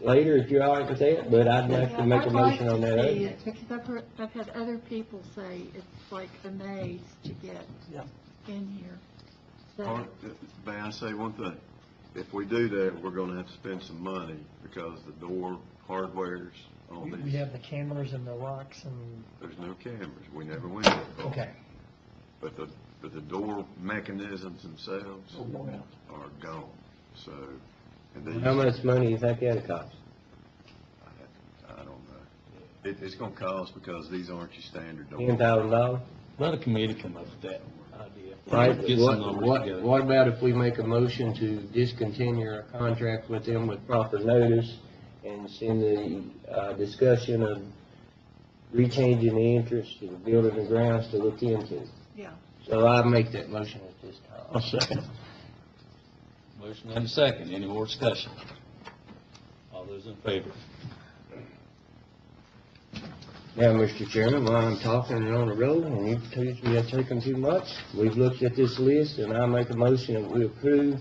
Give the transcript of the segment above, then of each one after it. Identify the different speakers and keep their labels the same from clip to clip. Speaker 1: later if you're all right with that, but I'd like to make a
Speaker 2: I'd like
Speaker 1: motion on
Speaker 2: to
Speaker 1: that. eh?
Speaker 2: see
Speaker 1: other.
Speaker 2: it, Because I've heard, I've had other people say it's like a maze to get
Speaker 3: Yeah.
Speaker 2: in here.
Speaker 4: Or,
Speaker 2: So,
Speaker 4: May I say one thing? If we do that, we're gonna have to spend some money because the door hardware's
Speaker 3: We
Speaker 4: on
Speaker 3: we
Speaker 4: these,
Speaker 3: have the cameras and the locks and,
Speaker 4: there's no cameras, we never went there.
Speaker 3: okay.
Speaker 4: But the, but the door mechanisms themselves
Speaker 3: Oh, yeah.
Speaker 4: are gone, so. and these-
Speaker 1: How much money you think that'll cost?
Speaker 4: I don't know. It, it's gonna cost because these aren't your standard
Speaker 1: Ten
Speaker 4: doors.
Speaker 1: thousand dollars?
Speaker 5: Let a committee come up with that idea.
Speaker 1: Right,
Speaker 5: Get some
Speaker 1: what,
Speaker 5: numbers
Speaker 1: what,
Speaker 5: together.
Speaker 1: what about if we make a motion to discontinue our contract with them with proper notice and send the, uh, discussion of rechanging the interest of building and grounds to look into?
Speaker 2: yeah.
Speaker 1: So I make that motion at this
Speaker 5: A
Speaker 1: time.
Speaker 5: second. Motion and a second, any more discussion? All those in favor?
Speaker 1: Now, Mr. Chairman, while I'm talking and on the road, and you've accused me of taking too much, we've looked at this list, and I make a motion that we approve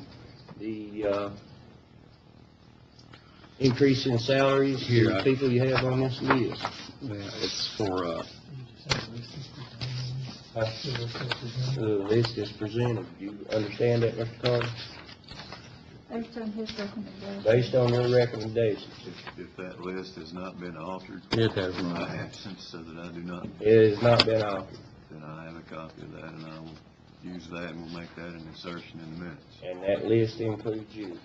Speaker 1: the, uh, increase in salaries
Speaker 5: Here,
Speaker 1: for
Speaker 5: I-
Speaker 1: the people you have on this list.
Speaker 5: It's for, uh,
Speaker 1: The list is presented. Do you understand that, Mr. Carter?
Speaker 2: Based on his recommendation.
Speaker 1: Based on your recommendations.
Speaker 4: If, if that list has not been altered
Speaker 5: it has
Speaker 4: in my
Speaker 5: run.
Speaker 4: absence, so that I do not,
Speaker 1: It has not been offered,
Speaker 4: then I have a copy of that and I will use that and we'll make that an insertion in the minutes.
Speaker 1: and that list includes you.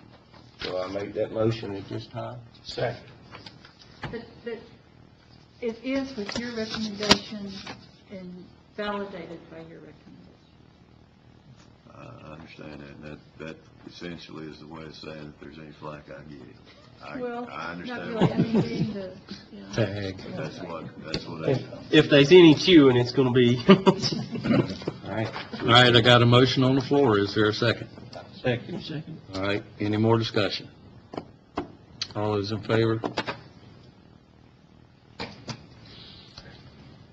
Speaker 1: So I make that motion at this time.
Speaker 5: Second.
Speaker 2: But, but it is with your recommendation and validated by your recommendation.
Speaker 4: I I understand that, and that, that essentially is the way of saying if there's any flack, I get it. I,
Speaker 2: Well,
Speaker 4: I
Speaker 2: Not
Speaker 4: understand.
Speaker 2: really, I mean, being the, you know,
Speaker 4: But That's what, that's what I,
Speaker 1: If there's any queuing, it's gonna be. All right,
Speaker 5: All right, I got a motion on the floor, is there a second?
Speaker 1: second.
Speaker 5: All right, any more discussion? All those in favor?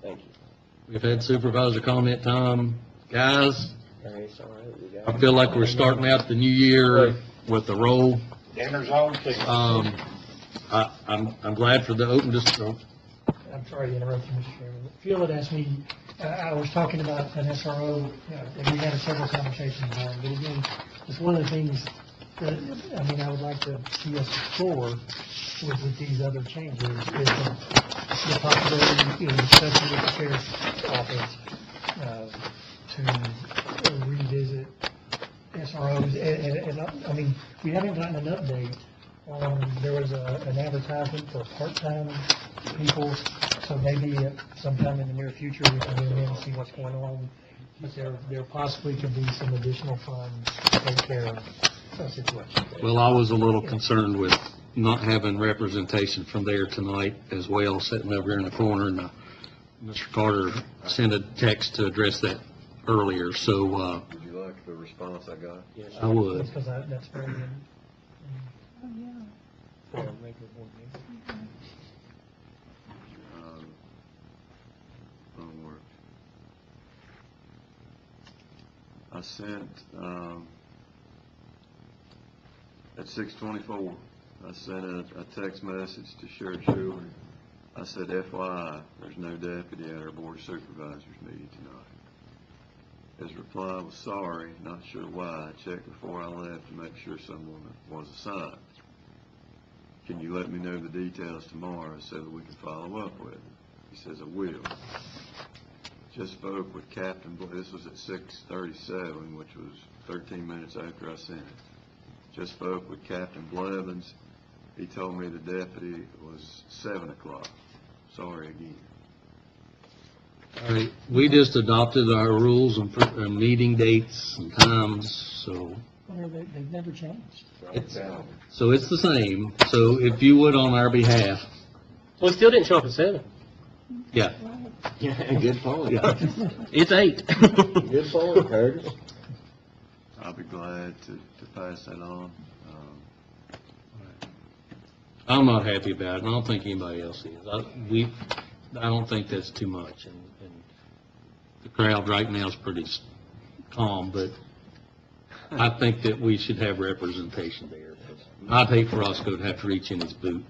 Speaker 1: Thank you.
Speaker 5: We've had supervisor comment time. Guys,
Speaker 1: All right, it's all right, we got
Speaker 5: I
Speaker 1: it.
Speaker 5: feel like we're starting out the new year with a roll. Um, I, I'm, I'm glad for the open discussion.
Speaker 3: I'm sorry to interrupt you, Mr. Chairman. Phil had asked me, uh, I was talking about an SRO, you know, and we had several conversations on it, but again, it's one of the things that, I mean, I would like to see us explore with, with these other changes, is the the possibility, you know, especially with the sheriff's office, uh, to revisit SROs, and, and- and, I- I mean, we haven't gotten an update on, there was a, an advertisement for part-time people, so maybe sometime in the near future, we can go in and see what's going on, but there, there possibly could be some additional funds to take care of the situation.
Speaker 5: Well, I was a little concerned with not having representation from there tonight as well, sitting over here in the corner, and uh, Mr. Carter sent a text to address that earlier, so, uh,
Speaker 4: would you like the response I got?
Speaker 1: Yes,
Speaker 5: I would.
Speaker 3: Because I- that's very, um,
Speaker 2: oh, yeah.
Speaker 3: for a regular board meeting.
Speaker 4: Um, Wrong word. I sent, um, at six twenty-four, I sent a, a text message to Sheriff Schuler. I said FYI, there's no deputy at our board of supervisors meeting tonight. His reply was sorry, not sure why, I checked before I left to make sure someone was assigned. Can you let me know the details tomorrow so that we can follow up with it? He says, I will. Just spoke with Captain, Bla- this was at six thirty-seven, which was thirteen minutes after I sent it. Just spoke with Captain Blevins. He told me the deputy was seven o'clock. Sorry again.
Speaker 5: All right, we just adopted our rules and, pr- and meeting dates and times, so,
Speaker 3: Well, they- They've never changed.
Speaker 5: it's, so it's the same. So if you would on our behalf,
Speaker 6: Well, it still didn't show up at seven.
Speaker 5: yeah,
Speaker 1: Yeah, good point.
Speaker 5: yeah, it's eight.
Speaker 1: Good point, Curtis.
Speaker 4: I'll be glad to, to pass that on. Um,
Speaker 5: I'm not happy about it, and I don't think anybody else is. I, we, I don't think that's too much, and, and the crowd right now is pretty s- calm, but I think that we should have representation there. I'd hate for Roscoe to have to reach in his boot